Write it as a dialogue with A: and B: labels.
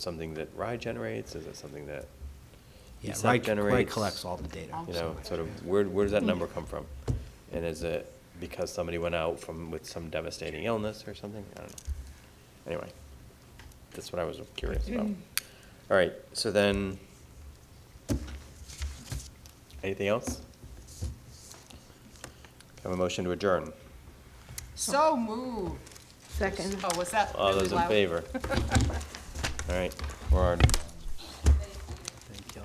A: something that Rye generates? Is it something that,
B: Yeah,
A: ESAP
B: Rai, Rai
A: generates-
B: collects all the data.
A: you
B: so-
A: know, sort of, where, where does that number come from? And is it because somebody went out from, with some devastating illness or something? I don't know. Anyway, that's what I was curious about. All right, so then, anything else? Have a motion to adjourn.
C: So moved.
D: Second.
C: Oh, was that
A: All
C: really
A: those in
C: loud?
A: favor? All right, we're on.